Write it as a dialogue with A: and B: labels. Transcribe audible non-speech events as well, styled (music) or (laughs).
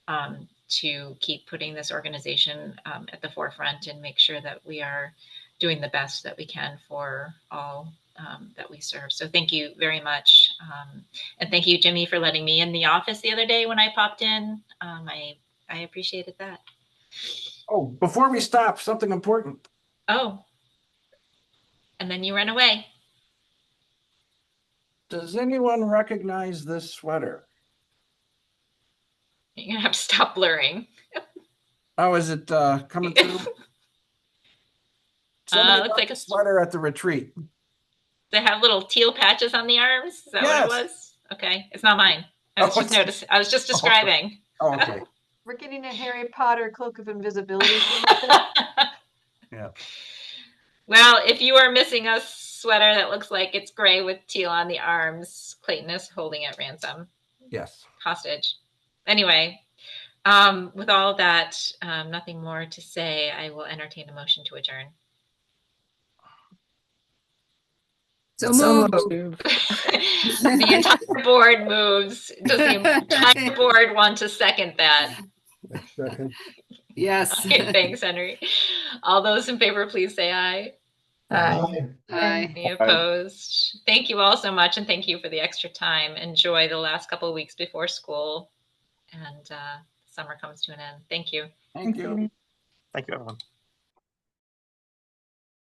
A: um, to keep putting this organization um, at the forefront and make sure that we are doing the best that we can for all um, that we serve. So thank you very much. Um, and thank you, Jimmy, for letting me in the office the other day when I popped in. Um, I, I appreciated that.
B: Oh, before we stop, something important.
A: Oh. And then you ran away.
B: Does anyone recognize this sweater?
A: You're gonna have to stop blurring.
B: Oh, is it uh coming
A: (laughs)
B: through?
A: Uh,
B: Somebody
A: looks
B: got
A: like a,
B: the sweater at the retreat.
A: they have little teal patches on the arms. Is that what it was? Okay, it's not mine. I was
B: (laughs)
A: just
B: Oh, it's-
A: noticing. I was just describing.
B: Oh, okay.
C: We're getting a Harry Potter cloak of invisibility. thing with it.
B: Yeah.
A: Well, if you are missing a sweater that looks like it's gray with teal on the arms, Clayton is holding it ransom.
B: Yes.
A: hostage. Anyway, um, with all that, um, nothing more to say. I will entertain a motion to adjourn.
D: So
E: So
D: moved.
A: the entire board moves. Does the entire board want to second that?
E: Yes.
A: Okay, thanks, Henry. All those in favor, please say aye.
E: Aye.
A: Any opposed? Thank you all so much, and thank you for the extra time. Enjoy the last couple of weeks before school, and uh, summer comes to an end. Thank you.
B: Thank you.
F: Thank you, everyone.